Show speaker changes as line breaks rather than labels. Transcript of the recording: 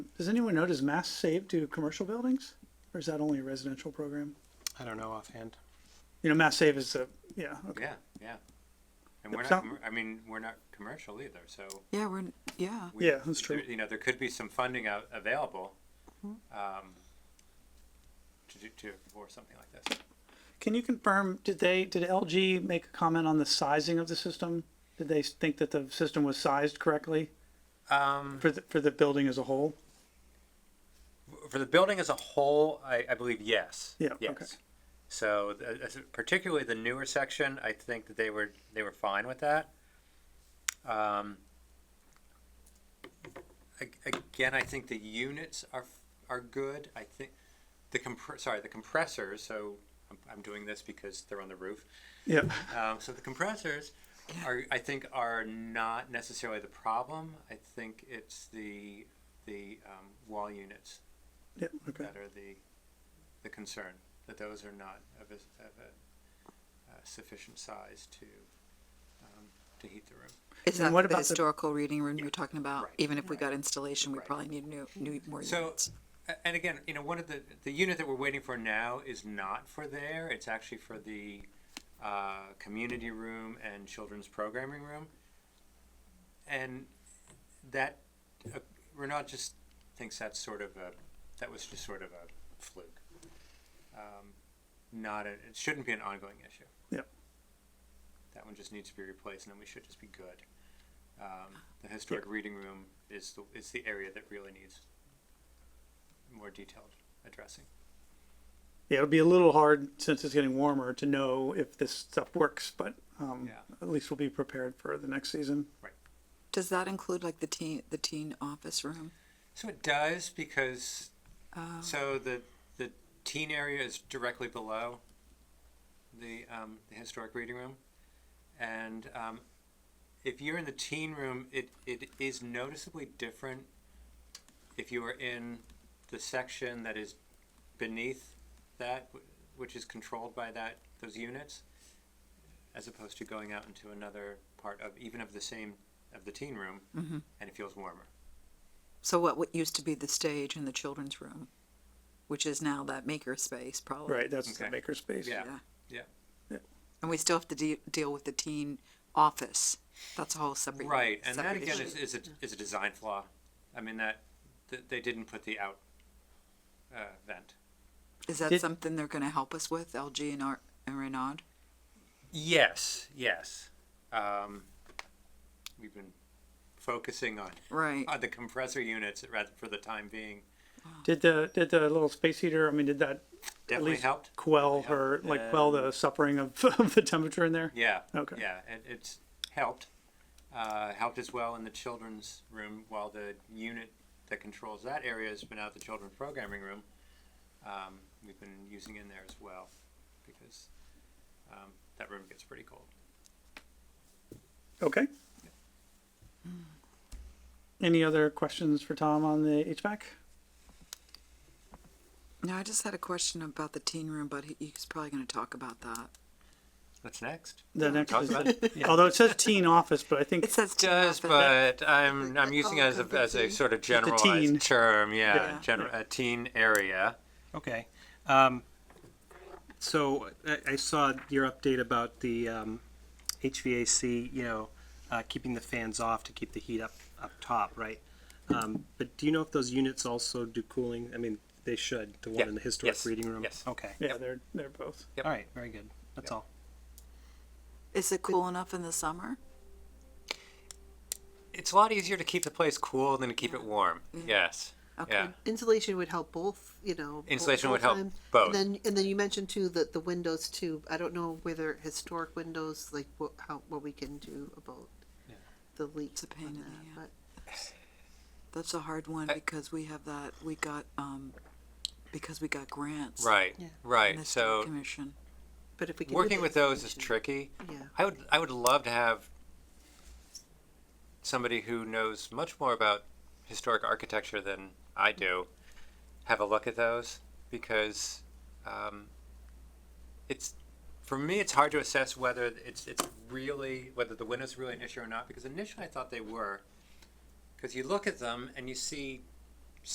Does anyone know, does Mass Save do commercial buildings? Or is that only a residential program?
I don't know offhand.
You know, Mass Save is a, yeah, okay.
Yeah, yeah. And we're
Yep,
not,
so-
commer- I mean, we're not commercial either, so.
Yeah, we're, n- yeah.
we-
Yeah, that's
there-
true. Mm-hmm.
You know, there could be some funding out, available, um, to do, to, for something like this.
Can you confirm, did they, did LG make a comment on the sizing of the system? Did they think that the system was sized correctly
Um,
for the, for the building as a whole?
for the building as a whole, I, I believe yes.
Yeah,
Yes.
okay.
So th- as- particularly the newer section, I think that they were they were fine with that. Um, ag- again, I think the units are are good. I think the compre- sorry the compressors. So I'm, I'm doing this because they're on the roof.
Yeah,
Um, so the compressors are, I think, are not necessarily the problem. I think it's the the um, wall units
yeah, okay.
that are the the concern that those are not of a, of a uh, sufficient size to um, to heat the room.
Is
And
that
what
for
about
the
the-
historical reading room you're talking about?
Right.
Even if we got installation, we
Right.
probably need new, new, more
So-
units.
A- And again, you know, one of the the unit that we're waiting for now is not for there. It's actually for the uh, community room and children's programming room. And that uh, Renaud just thinks that's sort of a that was just sort of a fluke. Um, not a, it shouldn't be an ongoing issue.
Yep.
That one just needs to be replaced, and then we should just be good. Um, the historic reading room is the is the area that really needs more detailed addressing.
Yeah, it'll be a little hard since it's getting warmer to know if this stuff works, but, um,
Yeah.
at least we'll be prepared for the next season.
Does that include like the teen, the teen office room? Um,
So it does because
Oh.
so the the teen area is directly below the um, the historic reading room, and um, if you're in the teen room, it it is noticeably different if you are in the section that is beneath that, wh- which is controlled by that those units, as opposed to going out into another part of even of the same of the teen room, and it feels warmer.
So what, what used to be the stage in the children's room, which is now that maker space probably.
Right, that's the
Okay.
maker space.
Yeah. Yeah.
And we still have to de- deal with the teen office. That's a whole separate.
Right, and that
separate
again
issue.
is, is a, is a design flaw. I mean, that, th they didn't put the out, uh, vent.
Is that
Did-
something they're gonna help us with, LG and R, and Renaud?
Yes, yes. Um, we've been focusing on,
Right,
on the compressor units rather for the time being.
Did the, did the little space heater, I mean, did that
Definitely
least-
helped. Um,
quell
Yeah.
her, like quell the suffering of, of the temperature in there?
Yeah.
Okay.
Yeah, it, it's helped. Uh, helped as well in the children's room while the unit that controls that area has been out the children's programming room. Um, we've been using it in there as well because um, that room gets pretty cold.
Okay. Any other questions for Tom on the HVAC?
now I just had a question about the teen room, but he, he's probably gonna talk about that.
What's next?
The next,
talk
is
about
the- although it says teen office, but I think,
It says teen
Does,
office.
but I'm I'm using it as
could
a
be
as a
teen.
sort of
a
generalized
teen.
term. Yeah,
Yeah.
General, a teen area.
Okay. Um, so I, I saw your update about the um, HVAC, you know, uh, keeping the fans off to keep the heat up up top, right? Um, but do you know if those units also do cooling? I mean, they should. The one
Yeah.
in the historic
Yes.
reading room.
Yes.
Okay.
yeah, they're, they're both.
Yep.
All right. Very good. That's all.
Is it cool enough in the summer?
It's a lot easier to keep the place cool than to keep it warm. Yes.
Okay.
Yeah.
insulation would help both you know bo-
Insulation
both
would help
times.
both.
and then and then you mentioned too that the windows too i don't know whether historic windows like what how what we can do about the leaks
It's a pain
on
in the
that,
ass. That's a hard one
I-
because we have that, we got, um, because we got grants.
Right.
Yeah.
in
Right.
the
So
Commission.
but, but if we can
working with those is tricky.
Yeah.
I would I would love to have somebody who knows much more about historic architecture than I do have a look at those because um, it's for me it's hard to assess whether it's it's really whether the windows are really an issue or not because initially I thought they were because you look at them and you see